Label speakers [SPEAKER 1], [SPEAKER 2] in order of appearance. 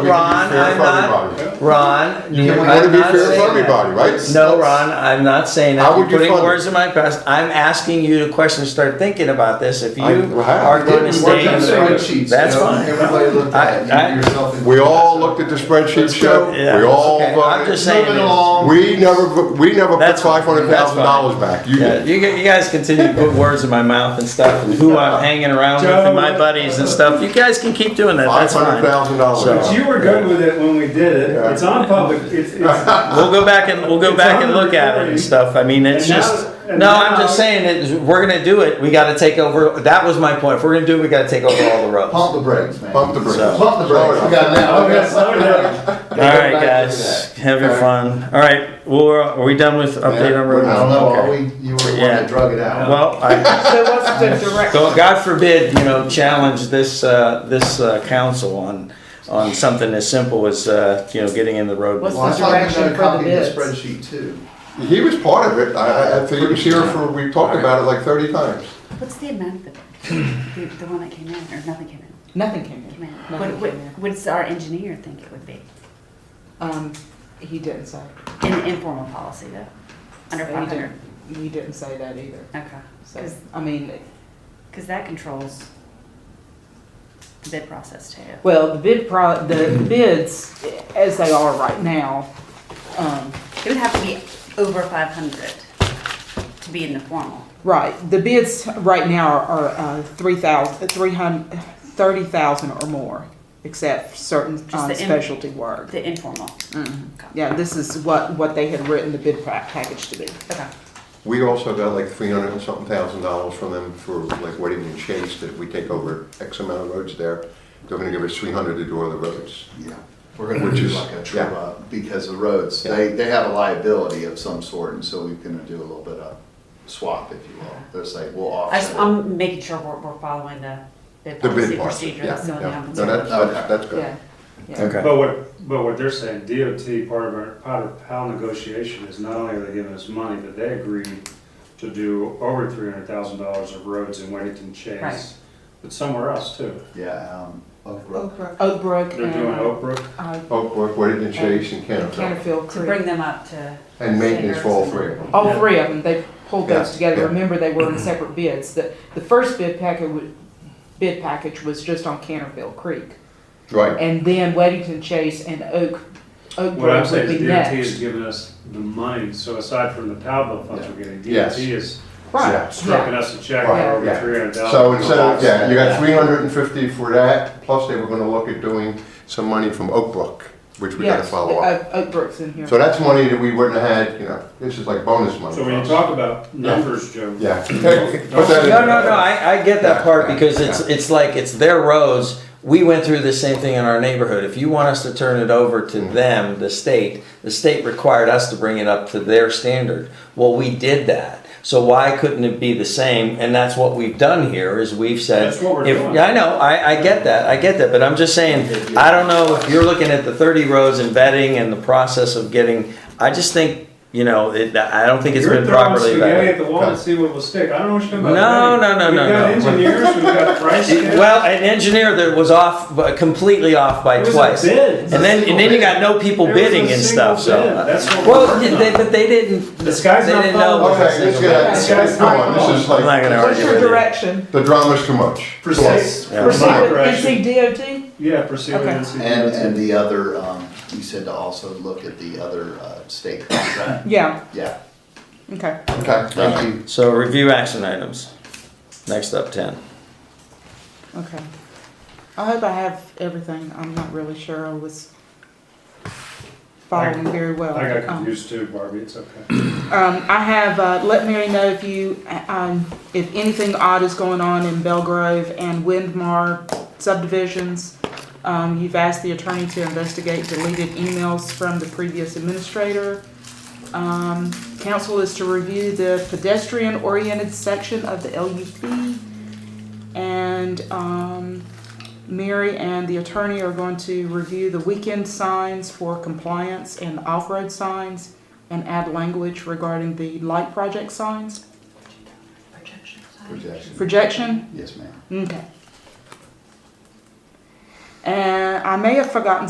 [SPEAKER 1] Ron, I'm not, Ron,
[SPEAKER 2] You
[SPEAKER 1] you-
[SPEAKER 2] want to
[SPEAKER 1] I'm
[SPEAKER 2] be
[SPEAKER 1] not
[SPEAKER 2] fair to
[SPEAKER 1] saying that.
[SPEAKER 2] everybody, right?
[SPEAKER 1] No, Ron, I'm not saying
[SPEAKER 2] How
[SPEAKER 1] that. You're
[SPEAKER 2] would you
[SPEAKER 1] putting
[SPEAKER 2] fund it?
[SPEAKER 1] words in my mouth. I'm asking you the question, start thinking about this. If you
[SPEAKER 2] I- well, I-
[SPEAKER 1] are going to
[SPEAKER 2] We're
[SPEAKER 1] stay in
[SPEAKER 2] just
[SPEAKER 1] the.
[SPEAKER 3] spreadsheets.
[SPEAKER 1] That's
[SPEAKER 3] you know,
[SPEAKER 1] fine.
[SPEAKER 3] Everybody looked
[SPEAKER 1] I-
[SPEAKER 3] at
[SPEAKER 1] I-
[SPEAKER 3] it, you yourself. included.
[SPEAKER 2] We all looked at the spreadsheet,
[SPEAKER 3] Let's go.
[SPEAKER 2] Joe.
[SPEAKER 1] Yeah,
[SPEAKER 2] We all
[SPEAKER 1] okay, I'm just
[SPEAKER 2] voted.
[SPEAKER 1] saying.
[SPEAKER 3] Moving
[SPEAKER 1] this.
[SPEAKER 3] along.
[SPEAKER 2] We never, we never put
[SPEAKER 1] That's fine.
[SPEAKER 2] five hundred thousand dollars back. You
[SPEAKER 1] Yeah,
[SPEAKER 2] did.
[SPEAKER 1] you, gu- you guys continue to put words in my mouth and stuff, and who I'm hanging around with and my buddies and stuff. You guys can keep doing that,
[SPEAKER 2] Five
[SPEAKER 1] that's fine.
[SPEAKER 2] hundred thousand
[SPEAKER 1] So-
[SPEAKER 2] dollars.
[SPEAKER 4] But you were good with it when we did it.
[SPEAKER 2] Yeah.
[SPEAKER 4] It's on public, it's, it's,
[SPEAKER 1] We'll go back and, we'll go
[SPEAKER 4] It's
[SPEAKER 1] back
[SPEAKER 4] on
[SPEAKER 1] and
[SPEAKER 4] the
[SPEAKER 1] look at it and
[SPEAKER 4] recording.
[SPEAKER 1] stuff. I mean, it's
[SPEAKER 4] And now-
[SPEAKER 1] just,
[SPEAKER 4] and
[SPEAKER 1] no, I'm
[SPEAKER 4] now-
[SPEAKER 1] just saying that we're gonna do it. We gotta take over, that was my point. If we're gonna do it, we gotta take over all the roads.
[SPEAKER 3] Pump the brakes, man.
[SPEAKER 2] Bump the brakes.
[SPEAKER 1] So-
[SPEAKER 3] Pump the brakes. We got now.
[SPEAKER 4] Okay, slow down.
[SPEAKER 1] All right, guys, have your fun. All right, well, we're- are we done with update on road?
[SPEAKER 3] I don't know, are
[SPEAKER 1] Okay.
[SPEAKER 3] we, you were the one
[SPEAKER 1] Yeah.
[SPEAKER 3] that drug it out.
[SPEAKER 1] Well, I,
[SPEAKER 5] So what's the direct,
[SPEAKER 1] so God forbid, you know, challenge this, uh, this, uh, council on, on something as simple as, uh, you know, getting in the road.
[SPEAKER 5] What's
[SPEAKER 3] Well, I thought you
[SPEAKER 5] Direction
[SPEAKER 3] got
[SPEAKER 5] for
[SPEAKER 3] a
[SPEAKER 5] the
[SPEAKER 3] copy of
[SPEAKER 5] bids.
[SPEAKER 3] the spreadsheet too.
[SPEAKER 2] He was part of it. I, I- I think he was here for, we talked about it like thirty times.
[SPEAKER 6] What's the amount that, the, the one that came in, or nothing came in,
[SPEAKER 5] nothing came
[SPEAKER 6] came
[SPEAKER 5] in.
[SPEAKER 6] in?
[SPEAKER 5] Nothing
[SPEAKER 6] What, what,
[SPEAKER 5] came in.
[SPEAKER 6] what's our engineer think it would be?
[SPEAKER 5] Um, he didn't say.
[SPEAKER 6] In the informal policy though, under
[SPEAKER 5] He
[SPEAKER 6] five hundred?
[SPEAKER 5] didn't- He didn't say that either.
[SPEAKER 6] Okay,
[SPEAKER 5] So,
[SPEAKER 6] cause,
[SPEAKER 5] I mean,
[SPEAKER 6] 'cause that controls the bid process too.
[SPEAKER 5] well, the bid pro, the bids, as they are right now, um,
[SPEAKER 6] It would have to be over five hundred to be in the formal.
[SPEAKER 5] right, the bids right now are, uh, three thousand, three hundred, thirty thousand or more, except certain,
[SPEAKER 6] Just
[SPEAKER 5] um,
[SPEAKER 6] the in-
[SPEAKER 5] specialty work.
[SPEAKER 6] the informal. Okay.
[SPEAKER 5] Mm-hmm. Yeah, this is what, what they had written the bid pa- package to be.
[SPEAKER 6] Okay.
[SPEAKER 2] We also got like three hundred and something thousand dollars from them for like Wedding and Chase, that if we take over X amount of roads there, they're gonna give us three hundred to do all the roads.
[SPEAKER 3] Yeah. We're gonna
[SPEAKER 2] Which
[SPEAKER 3] do
[SPEAKER 2] is-
[SPEAKER 3] like a
[SPEAKER 2] yeah.
[SPEAKER 3] trip up because the roads,
[SPEAKER 2] Yeah.
[SPEAKER 3] they, they have a liability of some sort and so we're gonna do a little bit of swap, if you will. They're saying, we'll
[SPEAKER 6] I just,
[SPEAKER 3] offset.
[SPEAKER 6] I'm making sure we're, we're following the bid
[SPEAKER 2] The
[SPEAKER 6] policy
[SPEAKER 2] bid part,
[SPEAKER 6] procedure.
[SPEAKER 2] yeah,
[SPEAKER 6] That's the only thing
[SPEAKER 2] yeah.
[SPEAKER 6] I'm
[SPEAKER 2] No,
[SPEAKER 6] concerned
[SPEAKER 2] that's,
[SPEAKER 6] about.
[SPEAKER 2] that's, that's good.
[SPEAKER 5] Yeah, yeah.
[SPEAKER 1] Okay.
[SPEAKER 4] But what, but what they're saying, DOT, part of our, part of PAL negotiation is not only are they giving us money, but they agreed to do over three hundred thousand dollars of roads in Weddington
[SPEAKER 6] Right.
[SPEAKER 4] Chase, but somewhere else too.
[SPEAKER 3] Yeah, um, Oak Grove.
[SPEAKER 5] Oak Brook. Oak Brook
[SPEAKER 4] They're doing
[SPEAKER 5] and,
[SPEAKER 4] Oak Brook.
[SPEAKER 5] uh,
[SPEAKER 2] Oak Brook, Oh, Wedding and Chase and Canterbury,
[SPEAKER 5] Canterville
[SPEAKER 6] To bring
[SPEAKER 5] Creek.
[SPEAKER 6] them up to.
[SPEAKER 2] and maintenance for all three of them.
[SPEAKER 5] All three of them, they pulled those
[SPEAKER 2] Yeah,
[SPEAKER 5] together.
[SPEAKER 2] yeah.
[SPEAKER 5] Remember, they were in separate bids. The, the first bid packet, wa- bid package was just on Canterville Creek.
[SPEAKER 2] Right,
[SPEAKER 5] And then Weddington Chase and Oak, Oak
[SPEAKER 4] What I'm
[SPEAKER 5] Brook would be
[SPEAKER 4] saying is DOT
[SPEAKER 5] next.
[SPEAKER 4] is giving us the money, so aside from the PAL bill funds we're getting,
[SPEAKER 2] Yes.
[SPEAKER 4] DOT is
[SPEAKER 2] Yeah,
[SPEAKER 5] Right,
[SPEAKER 4] stripping
[SPEAKER 5] yeah,
[SPEAKER 4] us a check for
[SPEAKER 2] Right,
[SPEAKER 4] over
[SPEAKER 2] yeah.
[SPEAKER 4] three hundred thousand.
[SPEAKER 2] so instead of, yeah, you got three hundred and fifty for that, plus they were gonna look at doing some money from Oak Brook, which we gotta
[SPEAKER 5] yes,
[SPEAKER 2] follow up.
[SPEAKER 5] Oak Oak Brook's in here.
[SPEAKER 2] So that's money that we wouldn't have had, you know, this is like bonus money.
[SPEAKER 4] So
[SPEAKER 2] for
[SPEAKER 4] when you
[SPEAKER 2] us.
[SPEAKER 4] talk about numbers, Joe.
[SPEAKER 2] Yeah. Put that in
[SPEAKER 1] No, no,
[SPEAKER 2] there.
[SPEAKER 1] no, I, I get that part because it's, it's like, it's their roads. We went through the same thing in our neighborhood. If you want us to turn it over to
[SPEAKER 4] Mm.
[SPEAKER 1] them, the state, the state required us to bring it up to their standard. Well, we did that. So why couldn't it be the same? And that's what we've done here is we've said.
[SPEAKER 4] That's what we're
[SPEAKER 1] if-
[SPEAKER 4] doing.
[SPEAKER 1] Yeah, I know, I, I get that, I get that, but I'm just saying, I don't know if you're looking at the thirty roads and vetting and the process of getting, I just think, you know, it, I don't think it's
[SPEAKER 4] You're
[SPEAKER 1] been
[SPEAKER 4] throwing
[SPEAKER 1] properly
[SPEAKER 4] spaghetti at
[SPEAKER 1] vetted.
[SPEAKER 4] the wall and see what will stick. I don't know what you're talking
[SPEAKER 1] No,
[SPEAKER 4] about.
[SPEAKER 1] no, no, no, no.
[SPEAKER 4] We've got engineers, we've got price.
[SPEAKER 1] It- Well, an engineer that was off, completely off by
[SPEAKER 4] It was a
[SPEAKER 1] twice.
[SPEAKER 4] bid.
[SPEAKER 1] And then, and then you got no people
[SPEAKER 4] It was a
[SPEAKER 1] bidding and
[SPEAKER 4] single
[SPEAKER 1] stuff, so. uh,
[SPEAKER 4] bid. That's what we're
[SPEAKER 1] Well,
[SPEAKER 4] working
[SPEAKER 1] they,
[SPEAKER 4] on.
[SPEAKER 1] but they didn't.
[SPEAKER 4] This guy's
[SPEAKER 1] they
[SPEAKER 4] not
[SPEAKER 1] didn't know
[SPEAKER 4] following.
[SPEAKER 1] what
[SPEAKER 2] Okay, let's
[SPEAKER 1] was-
[SPEAKER 2] get, let's get going. This is like.
[SPEAKER 1] I'm not gonna
[SPEAKER 5] What's
[SPEAKER 1] Argue
[SPEAKER 5] your
[SPEAKER 1] with you.
[SPEAKER 5] direction?
[SPEAKER 2] The drama's too much.
[SPEAKER 3] Plus-
[SPEAKER 4] Proceed,
[SPEAKER 1] Yeah.
[SPEAKER 4] proceed
[SPEAKER 5] Proceed
[SPEAKER 4] with
[SPEAKER 5] with
[SPEAKER 4] direction.
[SPEAKER 5] NCDOT?
[SPEAKER 4] Yeah, proceed with
[SPEAKER 5] Okay.
[SPEAKER 3] And, and
[SPEAKER 4] NCDOT.
[SPEAKER 3] the other, um, you said to also look at the other, uh, state contract.
[SPEAKER 5] Yeah,
[SPEAKER 3] Yeah,
[SPEAKER 5] okay.
[SPEAKER 2] Okay, thank you.
[SPEAKER 1] So review action items. Next up, ten.
[SPEAKER 5] Okay. I hope I have everything. I'm not really sure. I was following very well.
[SPEAKER 4] I got
[SPEAKER 5] Um,
[SPEAKER 4] confused too, Barbie, it's okay.
[SPEAKER 5] Um, I have, uh, let Mary know if you, uh, um, if anything odd is going on in Belgrove and Windmar subdivisions. Um, you've asked the attorney to investigate deleted emails from the previous administrator. Um, council is to review the pedestrian-oriented section of the LUP. And, um, Mary and the attorney are going to review the weekend signs for compliance and off-road signs and add language regarding the light project signs,
[SPEAKER 3] projection.
[SPEAKER 5] projection.
[SPEAKER 3] Yes, ma'am.
[SPEAKER 5] Okay. And I may have forgotten